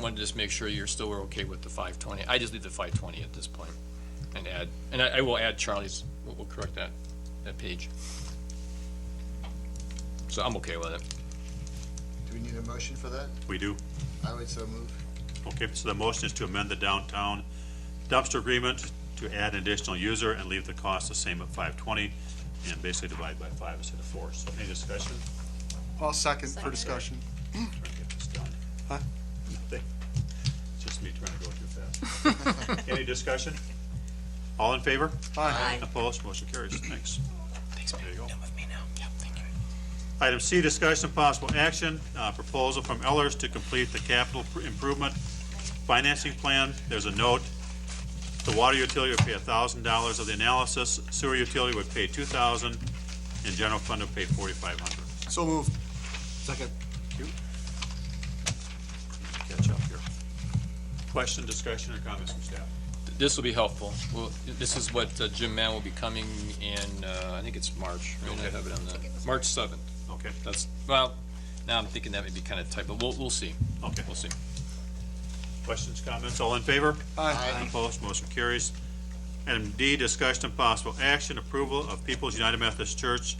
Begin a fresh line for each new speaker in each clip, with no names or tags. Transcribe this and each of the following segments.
Wanted to just make sure you're still okay with the five twenty. I just leave the five twenty at this point and add, and I, I will add Charlie's, we'll, we'll correct that, that page. So I'm okay with it.
Do we need a motion for that?
We do.
I would so move.
Okay, so the motion is to amend the downtown dumpster agreement to add an additional user and leave the cost the same at five twenty, and basically divide by five instead of four. So any discussion?
I'll second for discussion.
Trying to get this done.
Huh?
Nothing. It's Just me trying to go too fast. Any discussion? All in favor?
Aye.
Opposed? Motion carries. Thanks.
Thanks,
There you go.
Come with me now. Yep, thank you.
Item C, discussion of possible action, uh, proposal from Ellers to complete the capital pr- improvement financing plan. There's a note. The water utility would pay thousand dollars of the analysis, sewer utility would pay two thousand, and general fund would pay forty-five hundred.
So moved. Second.
Catch up here. Question, discussion, or comments from staff?
Th- This will be helpful. Well, this is what uh, Jim Mann will be coming in, uh, I think it's March. right? I have it on the, March seventh.
Okay,
That's, well, now I'm thinking that may be kind of tight, but we'll, we'll see.
okay.
We'll see.
Questions, comments, all in favor?
Aye.
Opposed, motion carries. Item D, discussion of possible action, approval of People's United Methodist Church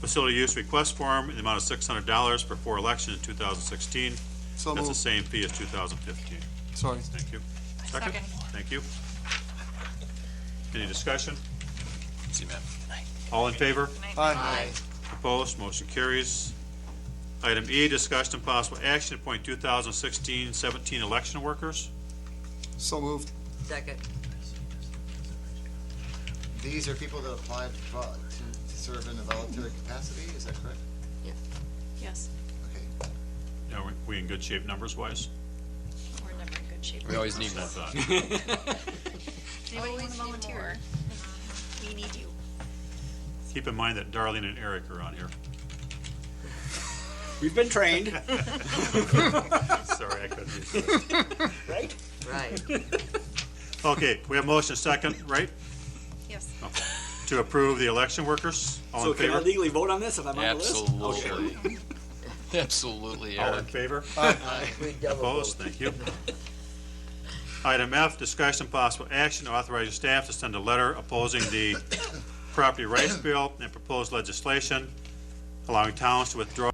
facility use request form in the amount of six hundred dollars for four elections in two thousand sixteen.
So
That's the
moved.
same fee as two thousand fifteen.
Sorry.
Thank you.
Second.
Thank you. Any discussion?
See, Matt.
All in favor?
Aye.
Opposed, motion carries. Item E, discussion of possible action, appoint 2016-17 election workers.
So moved.
Second.
These are people that applied for- to, to serve in a voluntary capacity, is that correct?
Yes,
Okay,
Are we- we in good shape numbers wise?
we're never in good shape.
We always need one.
Does anybody want to volunteer? We need you.
Keep in mind that Darlene and Eric are on here.
We've been trained.
Sorry, I couldn't. read.
Right.
Okay, we have motion second, right,
Yes.
to approve the election workers? All
So
in
can I
favor?
legally vote on this if I'm on the list? Okay.
Absolutely. Absolutely,
All in
Eric.
favor?
We double
Opposed? Thank you. Item F, discussion and possible action, authorizing staff to send a letter opposing the property rights bill and proposed legislation allowing towns to withdraw